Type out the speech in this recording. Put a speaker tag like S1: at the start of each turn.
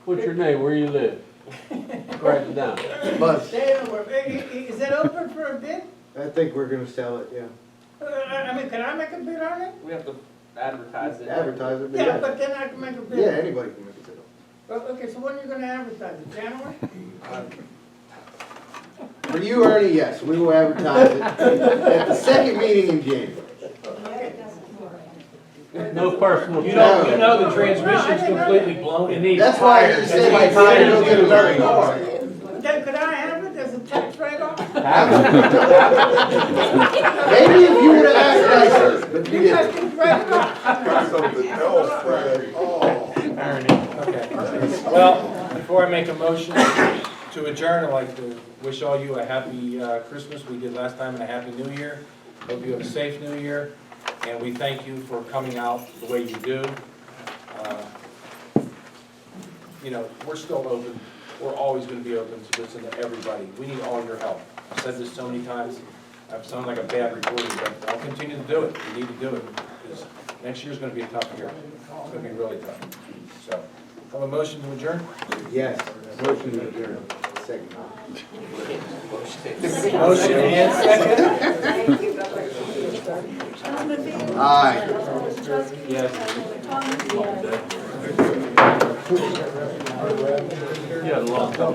S1: What's your name, where you live? Write it down.
S2: But
S3: They were, i- i- is it open for a bid?
S2: I think we're gonna sell it, yeah.
S3: Uh, I I mean, can I make a bid on it?
S4: We have to advertise it.
S2: Advertise it,
S3: Yeah,
S2: but
S3: but then I can make a
S2: yeah, yeah,
S3: bid.
S2: anybody can make a deal.
S3: Well, Okay, so when are you gonna advertise it, January?
S2: For you, Ernie, yes, we will advertise it at the second meeting in January.
S1: No personal.
S5: You know, you know the transmission's completely blown. It needs
S2: That's why
S5: tires.
S2: he said
S5: That's
S2: he's
S5: why
S2: gonna
S5: tires
S2: go
S5: need
S2: get a
S5: to
S2: very
S5: be-
S2: hard.
S3: Then could I have it as a tax write-off?
S2: Maybe if you would've asked nicer, but you
S3: You guys
S2: didn't.
S3: can write it off.
S5: Well, before I make a motion to adjourn, I'd like to wish all you a happy uh, Christmas, we did last time, and a happy new year. Hope you have a safe new year, and we thank you for coming out the way you do. Uh, You know, we're still open, we're always gonna be open to listen to everybody, we need all your help. I've said this so many times, I've sounded like a bad reporter, but I'll continue to do it, we need to do it, because next year's gonna be a tough year, it's gonna be really tough, so. Have a motion to adjourn?
S2: Yes, motion to adjourn, second.
S5: Motion and second?
S2: Aye.
S1: Yeah, a lot.